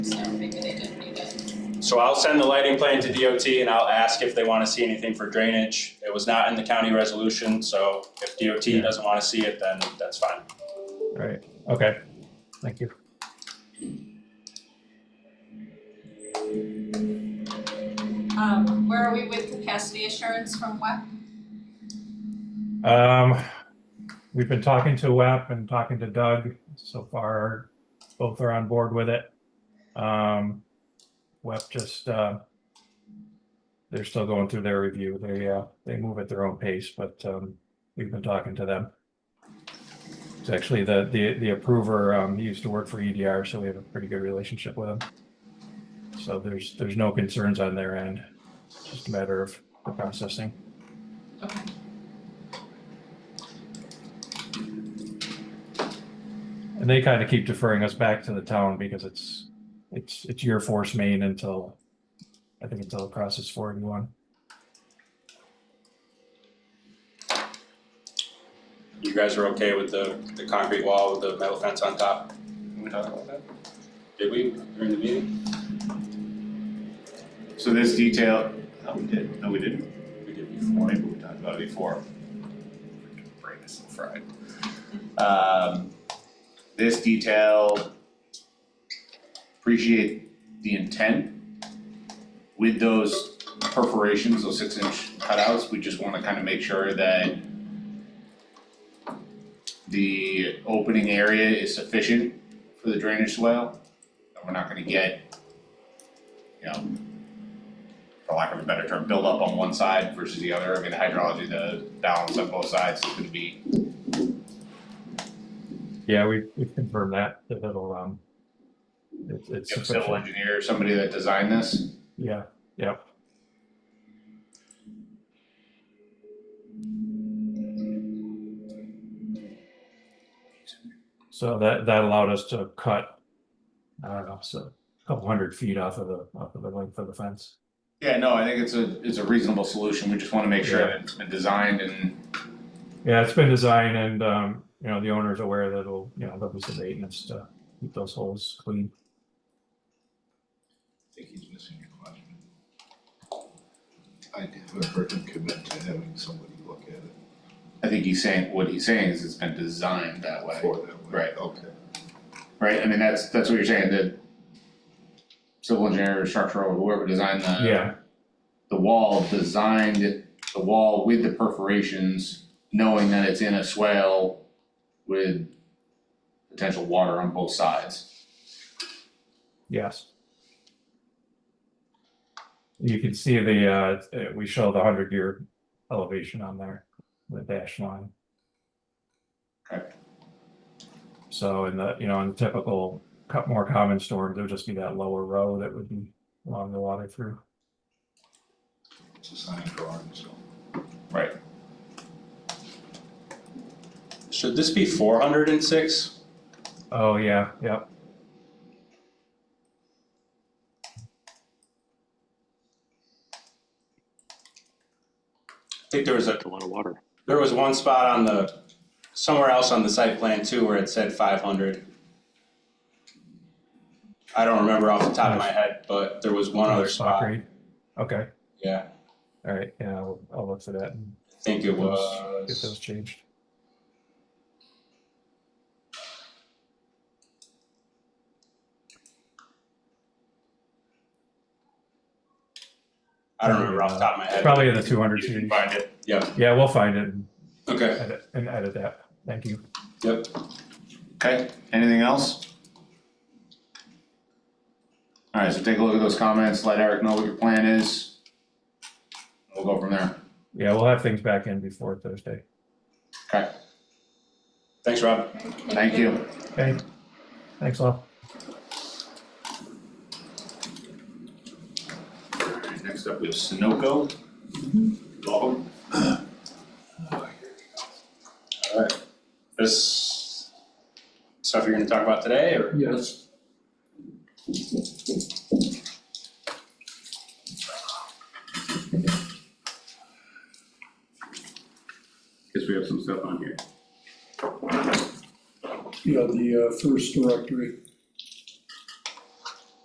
So maybe they didn't need it. So I'll send the lighting plan to DOT and I'll ask if they wanna see anything for drainage. It was not in the county resolution, so if DOT doesn't wanna see it, then that's fine. Right, okay, thank you. Um, where are we with capacity assurance from WEP? Um, we've been talking to WEP and talking to Doug so far, both are on board with it. Um, WEP just, uh, they're still going through their review, they, uh, they move at their own pace, but, um, we've been talking to them. It's actually the, the, the approver, um, he used to work for EDR, so we have a pretty good relationship with him. So there's, there's no concerns on their end, just a matter of the processing. Okay. And they kind of keep deferring us back to the town because it's, it's, it's your force main until, I think until it crosses forty-one. You guys are okay with the, the concrete wall with the metal fence on top? Did we talk about that? Did we during the meeting? So this detail, no, we did, no, we didn't, We did before, maybe we talked about it before. Brain is so fried. Um, this detail, appreciate the intent. With those perforations, those six inch cutouts, we just wanna kind of make sure that the opening area is sufficient for the drainage swale, and we're not gonna get, you know, for lack of a better term, build up on one side versus the other. I mean, the hydrology, the balance on both sides is gonna be, Yeah, we, we confirmed that, that it'll, um, it's, it's you have a civil sufficient, engineer, somebody that designed this. yeah, yeah. So that, that allowed us to cut, I don't know, so a couple hundred feet off of the, off of the length of the fence. Yeah, no, I think it's a, it's a reasonable solution. We just wanna make sure Yeah. that it's been designed and, Yeah, it's been designed and, um, you know, the owner's aware that it'll, you know, there'll be some maintenance to keep those holes clean. I think he's missing your question. I never heard him commit to having somebody look at it I think he's saying, what he's saying is it's been designed that way, for that way. Right. Okay. right? I mean, that's, that's what you're saying, that civil engineer or structural, whoever designed the Yeah, the wall, designed the wall with the perforations, knowing that it's in a swale with potential water on both sides. yes. You can see the, uh, uh, we show the hundred year elevation on there, the dash line. Okay. So in the, you know, in typical, cut more common storms, there would just be that lower row that would be along the water through. It's a signed drawing, so. Should this be four hundred and six? Oh, yeah, yep. I think there was a, a lot of water. there was one spot on the, somewhere else on the site plan too where it said five hundred. I don't remember off the top of my head, but there was one other spot, Concrete. Okay, yeah, all right, yeah, I'll, I'll look for that and I think it Get those- was. get those changed. I don't remember off the top of my head. Probably in the 200 You can series. Find it, yeah, Yeah, we'll find it and okay. edit, and edit that. Thank you. Yep. Okay, anything else? All right, so take a look at those comments, let Eric know what your plan is. We'll go from there. Yeah, we'll have things back in before Thursday. Okay, Thanks, Rob. thank you. Okay? Thanks, all. All right, Next up, we have Sunoco. Welcome. Alright. This stuff you're gonna talk about today or? Yes. Guess we have some stuff on here. Yeah, the uh, first directory.